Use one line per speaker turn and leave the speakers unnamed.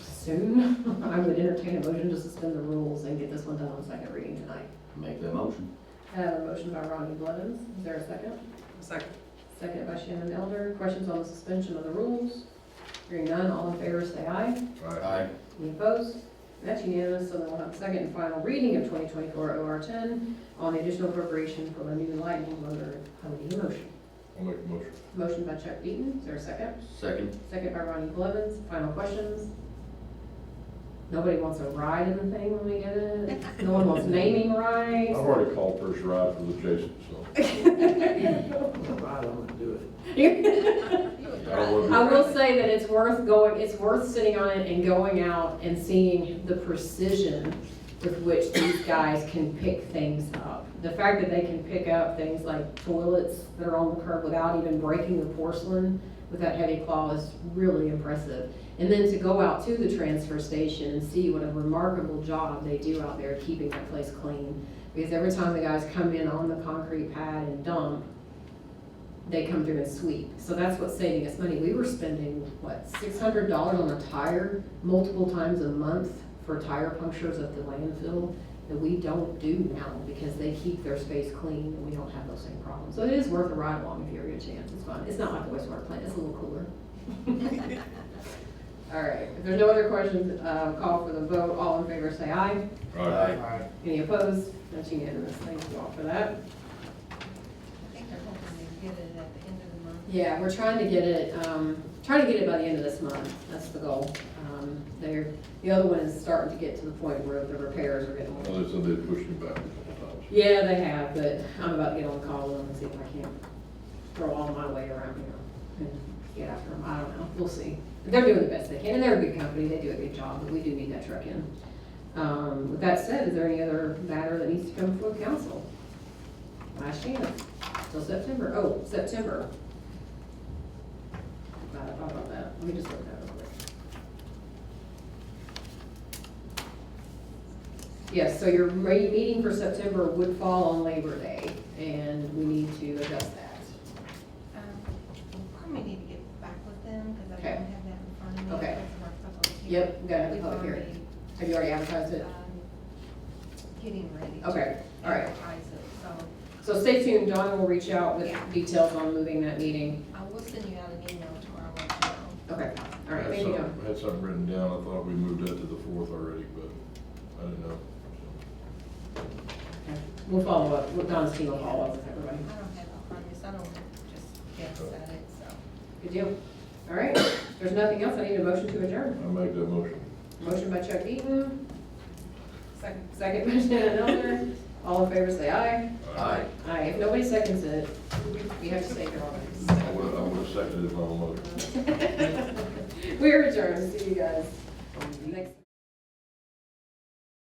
soon, I would entertain a motion to suspend the rules and get this one done on second reading tonight.
Make that motion.
I have a motion by Ronnie Blevins. Is there a second?
Second.
Second by Shannon Elder. Questions on the suspension of the rules? Hearing none, all in favor, say aye.
Aye.
Any opposed? That's unanimous, so then we'll have a second and final reading of 2024 OR 10 on the additional appropriation for the new lightning motor. I would need a motion.
I'll make a motion.
Motion by Chuck Eaton, is there a second?
Second.
Second by Ronnie Blevins, final questions? Nobody wants a ride in the thing when we get it? No one wants naming
I've
rights?
already called first ride for the Jason, so.
I don't want to do it.
I will say that it's worth going, it's worth sitting on it and going out and seeing the precision with which these guys can pick things up. The fact that they can pick up things like toilets that are on the curb without even breaking the porcelain with that heavy claw is really impressive. And then to go out to the transfer station and see what a remarkable job they do out there keeping that place clean. Because every time the guys come in on the concrete pad and dump, they come through and sweep. So that's what's saving us money. We were spending, what, six hundred dollars on a tire multiple times a month for tire punctures at the landfill that we don't do now because they keep their space clean and we don't have those same problems. So it is worth a ride along if you ever get a chance. It's fun. It's not like a wastewater plant. It's a little cooler. All right. If there's no other questions, uh, call for the vote. All in favor, say aye.
Aye.
Any opposed? That's unanimous. Thank you all for that.
I think they're hoping to get it at the end of the month.
Yeah, we're trying to get it, um, trying to get it by the end of this month, that's the goal. Um, they're, the other one is starting to get to the point where the repairs are getting.
Well, they said they pushed him back a couple times.
Yeah, they have, but I'm about to get on the call with them and see if I can throw all my weight around here and get after them, I don't know, we'll see. They're doing the best they can, and they're a good company, they do a good job, but we do need that truck in. Um, with that said, is there any other matter that needs to come before council? Last chance, till September, oh, September. Glad I thought about that, let me just look that real quick. Yes, so your ma- meeting for September would fall on Labor Day, and we need to adjust that.
Um, we Probably need to get back with them, because I
Okay.
don't have that in front of me.
Okay.
That's the work public hearing.
Yep, we gotta have a
We've
public hearing.
already,
Have you already advertised it?
um, Getting ready. to
Okay, all right.
advertise it. So
So stay tuned, Donna will reach out with
Yeah.
details on moving that meeting.
I will send you out an email tomorrow, let you know.
Okay, all right,
I had
thank you, Donna.
something- I had something written down, I thought we moved that to the fourth already, but I didn't know.
Okay. We'll follow up, Well, Donna's team will follow up with everybody.
I don't have it in front of me, so I don't just guess at it, so.
Good deal. All right, If there's nothing else, I need a motion to adjourn.
I make that motion.
Motion by Chuck Eaton,
Second.
second by Shannon Elder. All in favor, say aye.
Aye.
Aye, if nobody seconds it, you have to say your own.
I would, I would have seconded my own motion.
We are adjourned, see you guys next.